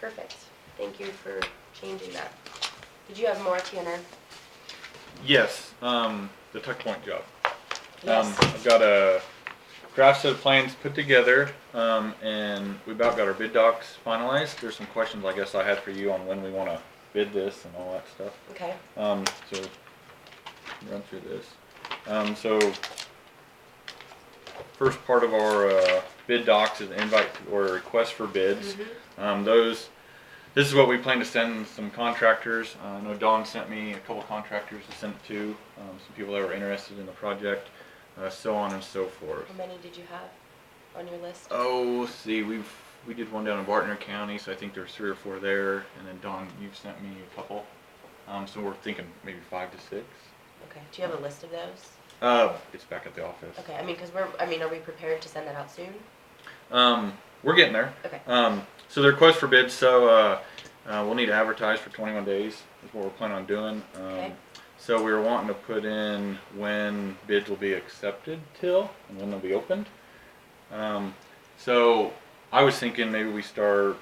Perfect. Thank you for changing that. Did you have more, Tanner? Yes, um, the tuck point job. Yes. Um, I've got a draft set of plans put together, um, and we about got our bid docs finalized. There's some questions I guess I had for you on when we wanna bid this and all that stuff. Okay. Um, so run through this. Um, so first part of our uh, bid docs is invite or request for Mm-hmm. bids. Um, those this is what we plan to send some contractors. Uh, I know Don sent me a couple contractors to send it to, um, some people that were interested in the project, uh, so on and so forth. How many did you have on your list? Oh, let's see, we've we did one down in Bartner County, so I think there's three or four there, and then Don, you've sent me a couple. Um, so we're thinking maybe five to six. Okay. Do you have a list of those? Uh, it's back at the office. Okay. I mean, because we're. I mean, are we prepared to send that out soon? Um, we're getting there. Okay. Um, so the request for bids, so, uh, uh, we'll need to advertise for twenty-one days, is what we're planning on doing. Okay. Um, so we were wanting to put in when bids will be accepted till, and when they'll be opened. Um, so I was thinking maybe we start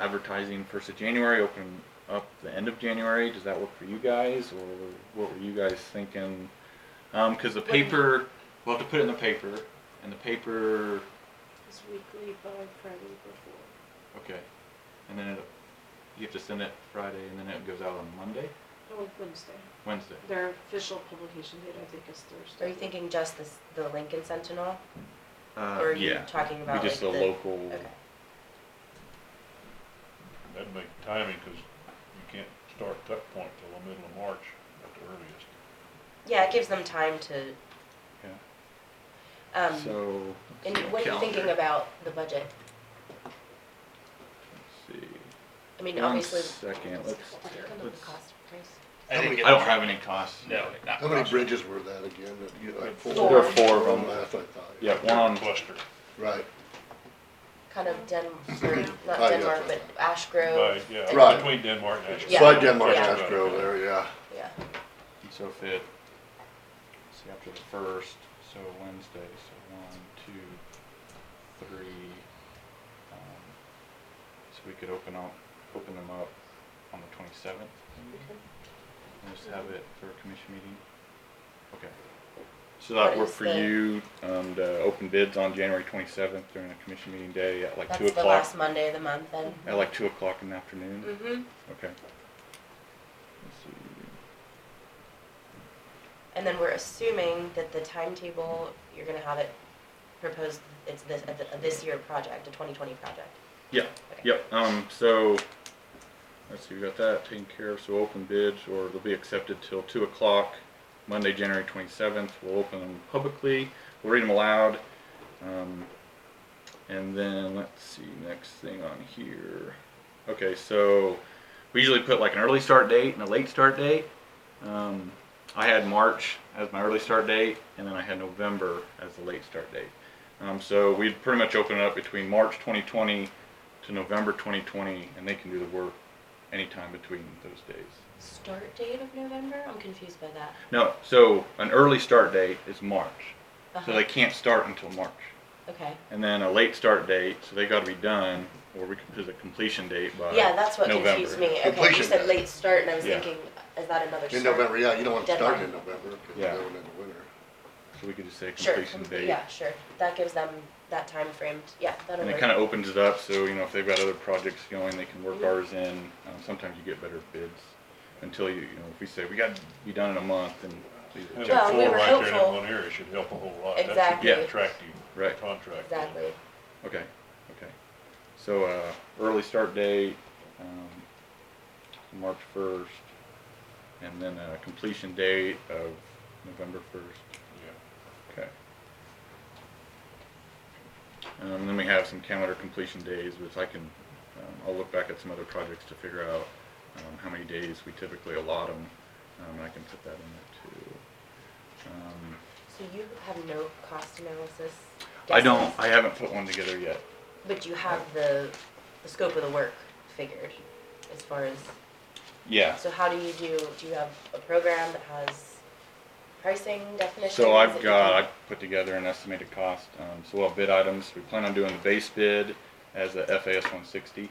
advertising first of January, open up the end of January. Does that work for you guys, or what were you guys thinking? Um, cause the What do you- paper, we'll have to put it in the paper, and the paper It's weekly by Friday before. Okay, and then it, you have to send it Friday, and then it goes out on Monday, Oh, Wednesday. Wednesday. Their official publication date, I think, is Thursday. Are you thinking just this, the Lincoln Sentinel, Uh, or are you yeah, talking we about just a like the? local. Okay. That'd make timing, cause you can't start tuck point till the middle of March at the earliest. Yeah, it gives them time to. Um, So. and what are you thinking about the budget? Let's see. I mean, One obviously. second, Let's- let's, I don't know the let's- cost price. I didn't get I don't that. have any costs. No. not How many costs. bridges were that again? that you- like Four. There were four of them. Oh, That's what I thought. Yeah, one on, Cluster. Right, Kind of Den, or not Oh, yeah, Denmark, but that's Ash Grove. By, yeah, Right. between Denmark and Ashland. Yeah. slide Denmark Yeah. Ash Grove there, yeah. Yeah. so if it, let's see, after the first, so Wednesday, so one, two, three. um, So we could open up, open them up on the twenty-seventh, maybe? We'll Just have it for a commission meeting? Okay. So What that work is for the- you, um, to open bids on January twenty-seventh during a commission meeting day at like two That's the o'clock? last Monday of the month then. At like two o'clock in the afternoon? Mm-hmm. Okay. Let's see. And then we're assuming that the timetable, you're gonna have it proposed, it's this, a- a this year project, a twenty twenty project. Yeah, Okay. yep, um, so, let's see, we got that taken care of, so open bids, or they'll be accepted till two o'clock, Monday, January twenty-seventh, we'll open them publicly, we'll read them aloud, um, and then, let's see, next thing on here, okay, so, we usually put like an early start date and a late start date, um, I had March as my early start date, and then I had November as the late start date. Um, so we'd pretty much open it up between March 2020 to November 2020, and they can do the work anytime between those days. Start date of November? I'm confused by that. No, so an early start date is March, so Uh-huh. they can't start until March, Okay. and then a late start date, so they got to be done, or we could put a completion date by Yeah, that's what uh, November. confused me. Okay, you Completion said date. late start and I was Yeah. thinking, is that another start? In November, yeah, you don't want to start in Deadline. November, because Yeah. you're going in the winter. So we could just say Sure, completion complete- date. yeah, sure. That gives them that time frame. Yeah, that'll And it work. kind of opens it up, so, you know, if they've got other projects going, they can work ours in. Um, sometimes you get better bids until you, you know, if we say, we got to be done in a month and. Having Well, we four were right there in hopeful. that one area should help a whole lot. That Exactly. should Yeah. be attractive Right. contract. Exactly. Okay, okay. So, uh, early start date, um, March first, and then a completion date of November first, Yeah. okay. Um, then we have some calendar completion days, which I can, um, I'll look back at some other projects to figure out, um, how many days we typically allot them, um, and I can put that in there too. Um, So you have no cost analysis? I don't, guesses, I haven't put one together yet. But you have the, the scope of the work figured as far as, Yeah, so how do you do, do you have a program that has pricing definitions? So that I've you got, can- I've put together an estimated cost, um, so we'll have bid items, we plan on doing the base bid as a FAS one sixty.